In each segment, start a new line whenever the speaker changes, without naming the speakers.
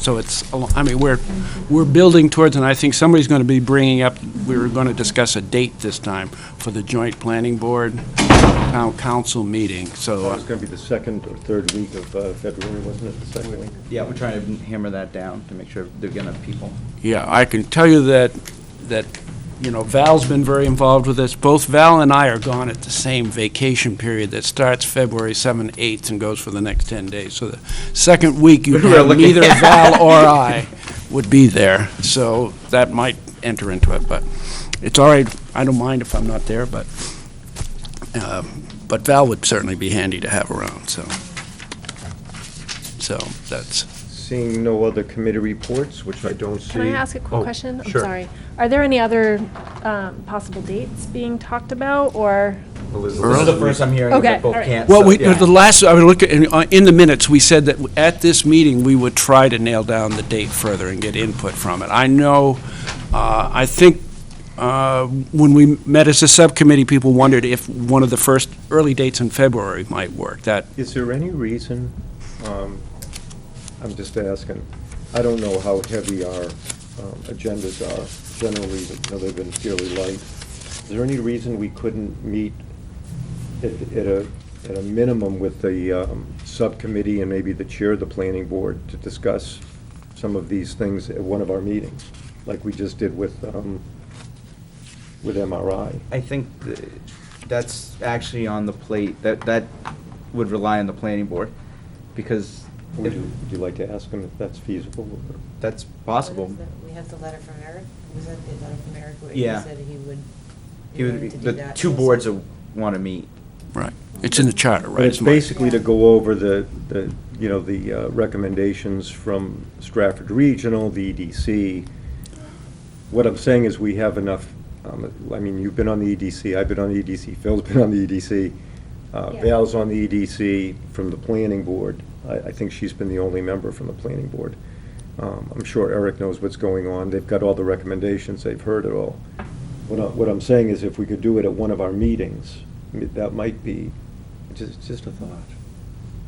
So it's, a lo- I mean, we're, we're building towards, and I think somebody's going to be bringing up, we were going to discuss a date this time for the joint planning board, town council meeting, so. uh,
It
uh,
was going to be the second or third week of uh, February, wasn't it, the second week?
Yeah, we're trying to hammer that down to make sure they're gonna have people.
Yeah, I can tell you that, that, you know, Val's been very involved with this. Both Val and I are gone at the same vacation period that starts February 7th, 8th, and goes for the next 10 days. So the second week, you
We were
have
looking-
neither Val or I would be there. So that might enter into it, but it's all right. I don't mind if I'm not there, but, um, but Val would certainly be handy to have around, so. So that's,
Seeing no other committee reports, which I don't see.
Can I ask a quick
Oh,
question? I'm
sure.
sorry. Are there any other um, possible dates being talked about, or?
This is
Elizabeth.
the first I'm hearing
Okay,
that both
all right.
can't.
Well,
so-
we,
yeah.
the last, I would look, at- in uh, in the minutes, we said that at this meeting, we would try to nail down the date further and get input from it. I know, uh, I think, uh, when we met as a subcommittee, people wondered if one of the first early dates in February might work. That,
Is there any reason, um, I'm just asking, I don't know how heavy our um, agendas are generally, you know, they've been fairly light. Is there any reason we couldn't meet at at a, at a minimum with the um, subcommittee and maybe the chair of the planning board to discuss some of these things at one of our meetings, like we just did with, um, with MRI?
I think th- that's actually on the plate, that, that would rely on the planning board, because
Would
if
you, would you like to ask them if that's feasible? or-
that's possible.
We have the letter from Eric, was that the letter from Eric where he
Yeah.
said he would,
It
he
would be,
wanted to do
the
that?
two boards will wanna meet.
right, it's in the charter, right?
But it's
It's March.
basically to go over the, the, you know, the uh, recommendations from Stratford Regional, the EDC. What I'm saying is we have enough, um, I mean, you've been on the EDC, I've been on the EDC, Phil's been on the EDC, uh,
Yeah.
Val's on the EDC from the planning board. I, I think she's been the only member from the planning board. Um, I'm sure Eric knows what's going on. They've got all the recommendations, they've heard it all. What I, what I'm saying is if we could do it at one of our meetings, I mean, that might be, just, just a thought,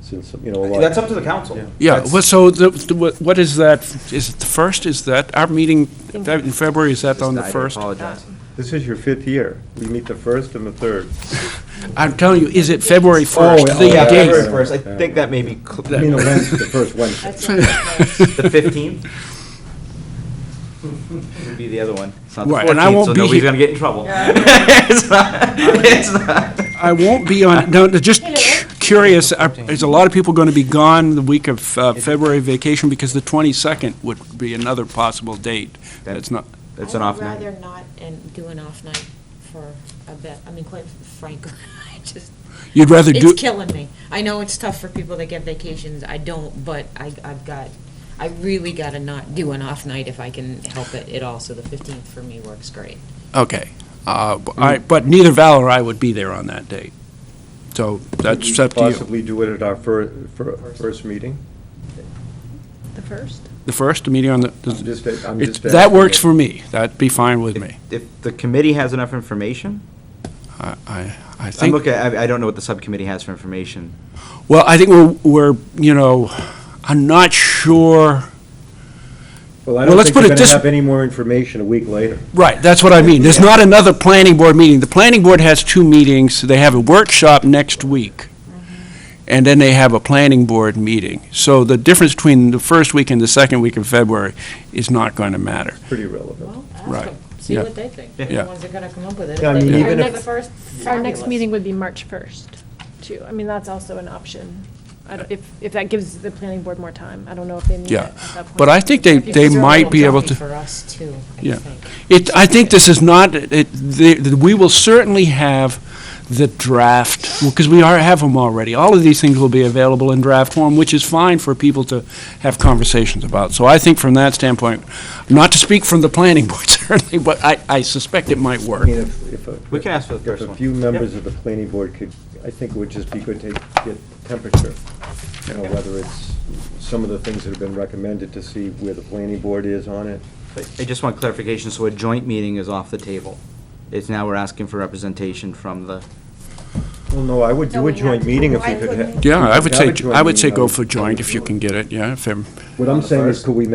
since, you know, a lot.
That's up to the council.
Yeah,
That's-
well, so the- the, what- what is that? Is it the first? Is that, our meeting in February, is that
Just
on the
died, I
first?
apologize.
Oh.
This is your fifth year. We meet the first and the third.
I'm telling you, is it February
Oh,
1st? the
yeah, oh, yeah,
Yeah,
date?
Dave.
February first, I think that may be cl-
I mean, the Wednesday, the first Wednesday.
That's what
the fifteenth. Would be the other one. It's not the
Right, and I
14th,
won't
so
be
nobody's
here.
gonna get in trouble. It's not- it's not.
I won't be on, no, no, just curious, are- is a lot of people going to be gone the week of uh, February vacation? Because the 22nd would be another possible date.
That-
That's not,
It's an off
I'd rather
night.
not and do an off night for a bit, I mean, quite frankly, I just,
you'd rather do,
it's killing me. I know it's tough for people that get vacations, I don't, but I, I've got, I really gotta not do an off night if I can help it at all, so the fifteenth for me works great.
okay. Uh, b- I- But neither Val or I would be there on that date. So that's up to you.
Possibly do it at our fir, fir- first meeting?
The first?
The first, the meeting on the,
I'm just- I'm
it's-
just
that works
asking.
for me. That'd be fine with me.
If the committee has enough information,
I- I, I
I'm
think.
looking, I, I don't know what the subcommittee has for information.
Well, I think we're, we're, you know, I'm not sure,
Well,
Well,
I don't
let's
think
put
we're
it
going to
this-
have any more information a week later.
Right, that's what I mean. There's not another planning board meeting. The planning board has two meetings. They have a workshop next week, and then they have a planning board meeting. So the difference between the first week and the second week of February is not going to matter.
Pretty relevant.
Well, ask
Right.
them, see
Yeah.
what they think,
Yeah.
they're the ones that are gonna come up with it.
Yeah, I
If they
mean,
think
even
Our
it's
if-
the
next,
first,
our next
fabulous.
meeting would be March 1st, too. I mean, that's also an option, I don't- if, if that gives the planning board more time. I don't know if they need it
Yeah.
at that point.
But I think they,
It's
they
a
might be
little
able
jumpy
to,
For us too, I
Yeah.
think.
it, I think this is not, it, the- the- we will certainly have the draft, because we are, have them already. All of these things will be available in draft form, which is fine for people to have conversations about. So I think from that standpoint, not to speak from the planning board certainly, but I, I suspect it might
I
work.
mean, if, if. a-
We can ask for the
if
first
a
one.
few
Yep.
members of the planning board could, I think it would just be good to get temperature. You know, whether it's some of the things that have been recommended to see where the planning board is on it.
But I just want clarification, so a joint meeting is off the table. It's now we're asking for representation from the
Well, no, I would do a joint meeting if we could have.
Yeah, I would
Yeah,
say,
but joint
I would say
meeting,
go
um,
for joint if you can get it, yeah, if, every-
What I'm saying is, could we make